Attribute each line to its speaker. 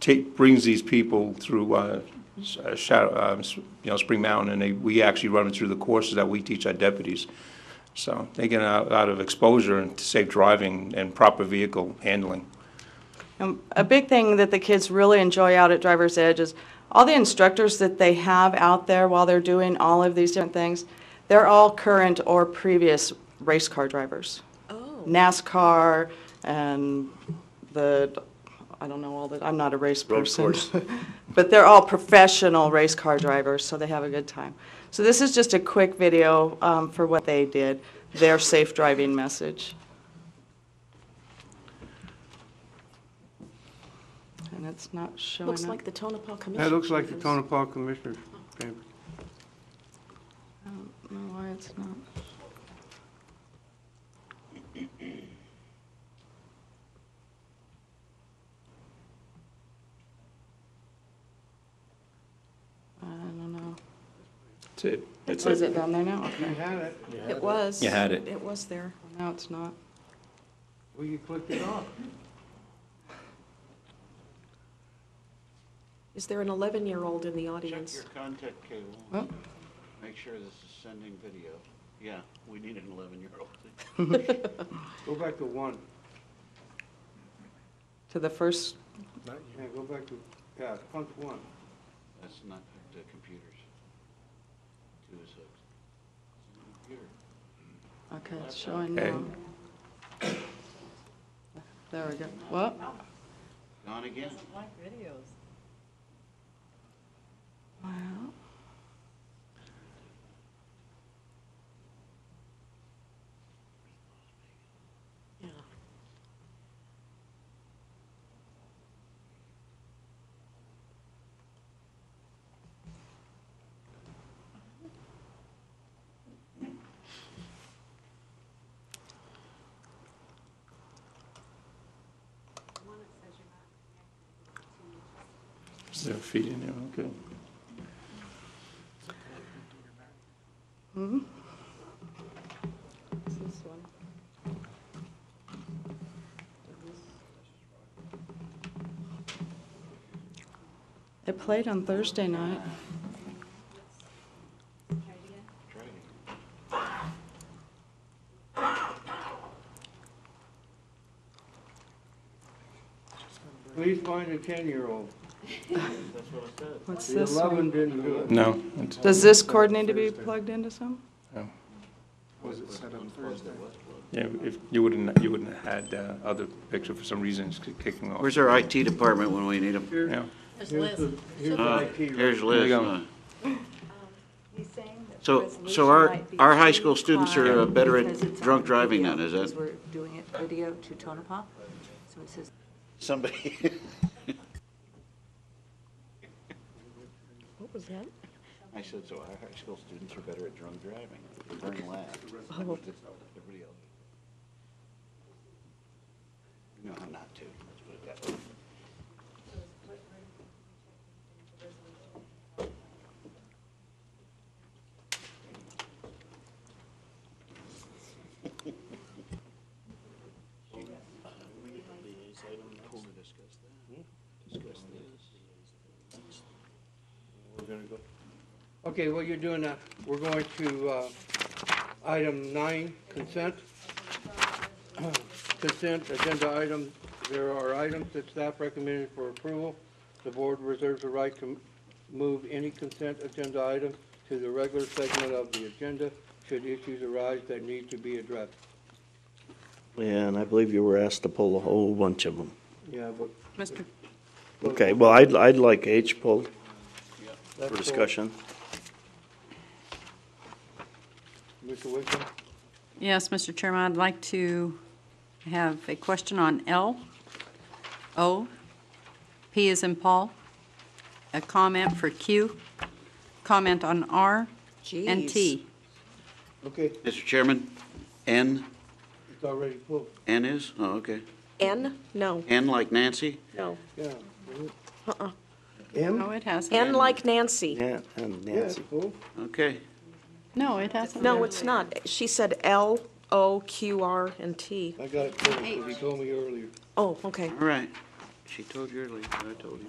Speaker 1: take, brings these people through, uh, s- uh, Shadow, um, s- you know, Spring Mountain, and they, we actually run them through the courses that we teach our deputies. So they get a lot of exposure and to safe driving and proper vehicle handling.
Speaker 2: Um, A big thing that the kids really enjoy out at Driver's Edge is all the instructors that they have out there while they're doing all of these different things, they're all current or previous race car drivers.
Speaker 3: Oh.
Speaker 2: NASCAR and the, I don't know all the, I'm not a race
Speaker 1: Road
Speaker 2: person.
Speaker 1: course.
Speaker 2: But they're all professional race car drivers, so they have a good time. So this is just a quick video um, for what they did, their safe driving message. And it's not showing
Speaker 3: Looks
Speaker 2: up.
Speaker 3: like the Tonopah Commission.
Speaker 4: That looks like the Tonopah Commissioner. chamber.
Speaker 2: I don't know why it's not. I don't know.
Speaker 1: That's it. That's
Speaker 2: Is it down there now?
Speaker 4: You
Speaker 2: Okay,
Speaker 4: had it.
Speaker 3: It was.
Speaker 1: You had it.
Speaker 3: It was there.
Speaker 2: now it's not.
Speaker 4: Well, you clicked it off.
Speaker 3: Is there an 11-year-old in the audience?
Speaker 5: Check your contact cable.
Speaker 2: Well.
Speaker 5: Make sure this is sending video. Yeah, we need an 11-year-old.
Speaker 4: Go back to one.
Speaker 2: To the first,
Speaker 4: Yeah, go back to, yeah, punch one.
Speaker 5: That's not the computers. Two is hooked. It's on the
Speaker 2: okay, it's
Speaker 5: computer.
Speaker 2: showing
Speaker 1: Okay.
Speaker 2: now. There we go. What?
Speaker 5: Gone again.
Speaker 2: Wow.
Speaker 3: Yeah.
Speaker 1: Is there a feed in there? Okay.
Speaker 2: It's this one. It played on Thursday night.
Speaker 5: Try it again.
Speaker 4: Please find a ten-year-old.
Speaker 2: What's
Speaker 4: The
Speaker 2: this one?
Speaker 4: eleven didn't do it.
Speaker 1: No, it's-
Speaker 2: Does this cord need to be plugged into some?
Speaker 1: yeah, if, you wouldn't, you wouldn't have had uh, other picture for some reason, it's kicking off.
Speaker 5: Where's our IT department when we need them?
Speaker 1: Yeah.
Speaker 4: Here's the, here's
Speaker 5: Uh,
Speaker 4: the IT.
Speaker 5: Here's
Speaker 1: There you
Speaker 5: Liz.
Speaker 1: go.
Speaker 5: uh,
Speaker 6: He's saying that the
Speaker 5: So, so
Speaker 6: resolution
Speaker 5: our,
Speaker 6: might be
Speaker 5: our high
Speaker 6: too
Speaker 5: school students are
Speaker 6: high
Speaker 5: uh, better
Speaker 6: because
Speaker 5: at
Speaker 6: it's on
Speaker 5: drunk driving
Speaker 6: video,
Speaker 5: than, is
Speaker 6: because
Speaker 5: that?
Speaker 6: We're doing it video to Tonopah, so it says
Speaker 5: Somebody,
Speaker 3: What was that?
Speaker 5: I said, so our high school students are better at drunk driving. They Burn laugh.
Speaker 3: Oh.
Speaker 5: Everybody else. No, I'm not too. Let's put it that way.
Speaker 4: Okay, what you're doing now, we're going to, uh, item nine, consent. Consent, agenda item, there are items that staff recommended for approval. The board reserves the right to move any consent agenda item to the regular segment of the agenda should issues arise that need to be addressed.
Speaker 7: Yeah, and I believe you were asked to pull a whole bunch of them.
Speaker 4: Yeah, but.
Speaker 2: Mr.
Speaker 7: Okay, well, I'd, I'd like H pulled
Speaker 4: that's
Speaker 7: for
Speaker 4: all.
Speaker 7: discussion.
Speaker 4: Mr. Wickham,
Speaker 8: Yes, Mr. Chairman, I'd like to have a question on L, O, P is in Paul, a comment for Q, comment on R, and T.
Speaker 4: okay,
Speaker 5: Mr. Chairman, N,
Speaker 4: it's already pulled,
Speaker 5: N is? Oh, okay.
Speaker 3: N? No,
Speaker 5: N like Nancy?
Speaker 3: no.
Speaker 4: yeah.
Speaker 8: No, it hasn't.
Speaker 3: N like Nancy.
Speaker 7: Yeah, and
Speaker 4: Yeah, it's
Speaker 7: Nancy.
Speaker 4: pulled.
Speaker 5: Okay.
Speaker 8: No, it hasn't.
Speaker 3: No, it's not. She said L, O, Q, R, and T.
Speaker 4: I got it pulled, 'cause he told me earlier.
Speaker 3: Oh, okay.
Speaker 5: All right. She told you earlier, I told you.